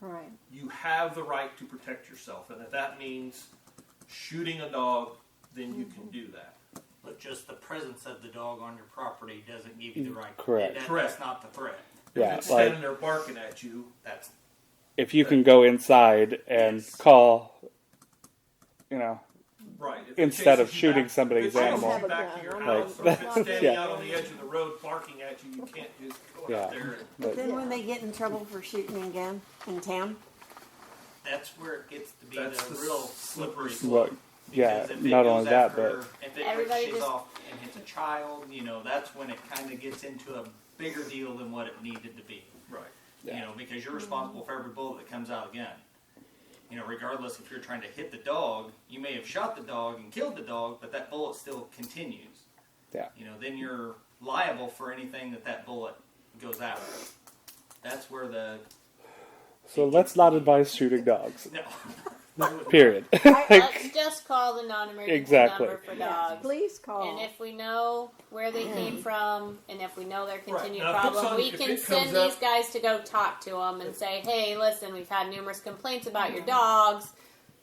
Right. you have the right to protect yourself. And if that means shooting a dog, then you can do that. But just the presence of the dog on your property doesn't give you the right. Mm, Correct. That, Correct. That's not the threat. if Yeah, it's like standing there barking at you, That's if you can go inside and Yes. call, you know, right. if it Instead of chases you shooting back- somebody's if it chases animal. you back to your Like- house, or if it's standing Yeah. out on the edge of the road barking at you, you can't just go Yeah. out there and but Then when they get in trouble for shooting a gun in town, that's where it gets to be That's the, the real s- slippery Well, slope. yeah, Because if it not goes only that, after- but if it Everybody ricochets just- off and hits a child, you know, that's when it kind of gets into a bigger deal than what it needed to be. right. You Yeah. know, because you're responsible for every bullet that comes out of the gun. You know, regardless if you're trying to hit the dog, you may have shot the dog and killed the dog, but that bullet still continues. Yeah. You know, then you're liable for anything that that bullet goes after. That's where the so let's not advise shooting dogs. no. Period. Let's just call the non-emergency Exactly. number for yeah, dogs. please call. And if we know where they came from, and if we know their continued Now, if it's problem, on- we if can it send comes up- these guys to go talk to them and say, "Hey, listen, we've had numerous complaints about your dogs.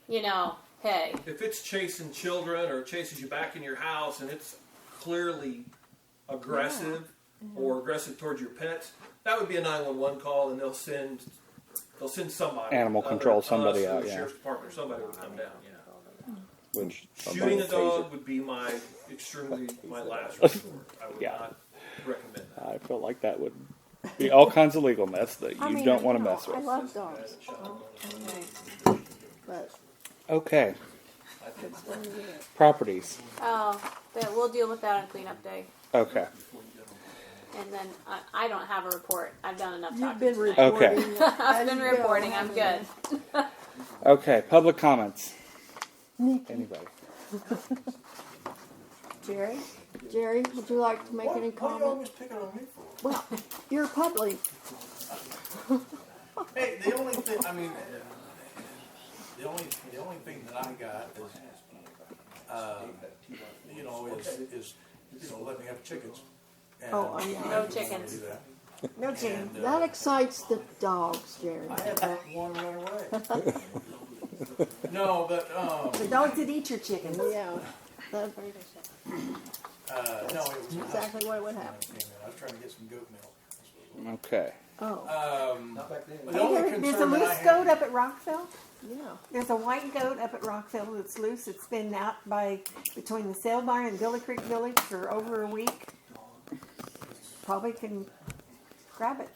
You know, hey, If it's chasing children or chases you back in your house and it's clearly aggressive or aggressive towards your pets, that would be a 911 call and they'll send they'll send somebody. Animal either control, us somebody or the out, yeah. Sheriff's department or somebody would come down, yeah. Which Shooting a dog would be my extremely my last resort. I would Yeah. not recommend that. I feel like that would be all kinds of legal mess that you I mean, don't want to know, mess I with. love dogs. Oh, Okay. But Okay, it's when you get it. properties. oh, but we'll deal with that on cleanup day." Okay, And then I, I don't have a report. I've done enough You've talking. been tonight. reporting. it I've as been you go, reporting. I'm haven't good. you? okay. Public comments. Anybody? Jerry, Jerry, would you like to make any comment? picking on me for? Well, you're public. Hey, the only thing, I mean, the only, the only thing that I got is, uh, you know, is, is, you know, let me have chickens. And Oh, yeah. I No didn't chickens. do that. No, Jerry. And, uh, That excites the dogs, Jerry. I had that one run away. No, but, um, The dogs that eat your chickens. Yeah, that's uh, no, it was. I exactly what would happen. came in, I was trying to get some goat milk. Okay. Oh, Um, Not back then. the only There- there's a concern that I loose had. goat up at Rockville. yeah. There's a white goat up at Rockville that's loose. It's been out by between the sale barn and Billy Creek Village for over a week. Probably can grab it,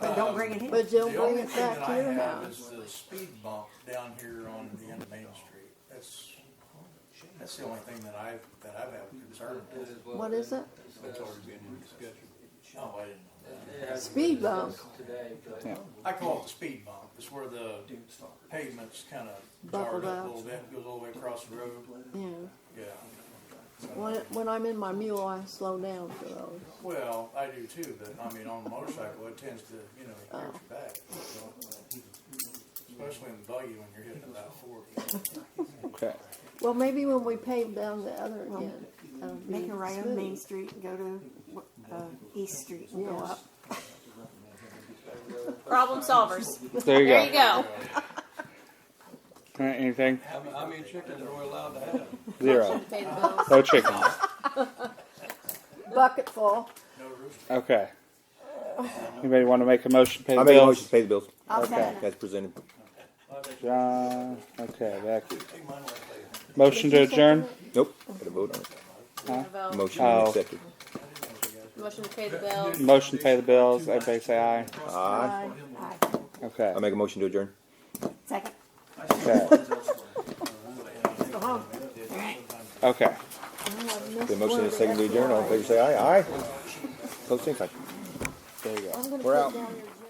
but Um, don't bring it here. But you'll The only bring it thing back that to I your have house. Is the speed bump down here on the end of Main Street. That's, that's the only thing that I, that I've had concern with. What is it? Oh, I didn't. Speed bump. I call it the speed bump. It's where the pavement's kind of Buckled jarred up. up a little bit, goes all the way across the road. Yeah. Yeah. When, when I'm in my mule, I slow down for those. Well, I do too, but I mean, on a motorcycle, it tends to, you know, hurt your back. so. Especially in the buggy when you're hitting about forty. Okay. Well, maybe when we pave down the other again, that'll be Make a right on Main smooth. Street and go to uh, East Street and go Yes. up. Problem solvers. There you go. There you go. All right, anything? How, how many chickens are we allowed to have? Zero. Pay the bills. No chickens. Bucket full. No roof. Okay. Anybody want to make a motion to pay the I make a bills? motion to pay the bills. I'll Okay. That's presented. John. Okay, Becky. Take mine like that. Motion to adjourn. Nope. Gotta vote on it. Vote. Motion Oh. accepted. Motion to pay the bills. Motion to pay the bills. Everybody say aye. Aye. Okay. I make a motion to adjourn. Second. Okay. Okay. The motion is second to adjourn. All in favor, say aye. Aye. Close same sign. There you go. I'm gonna We're put out. down your-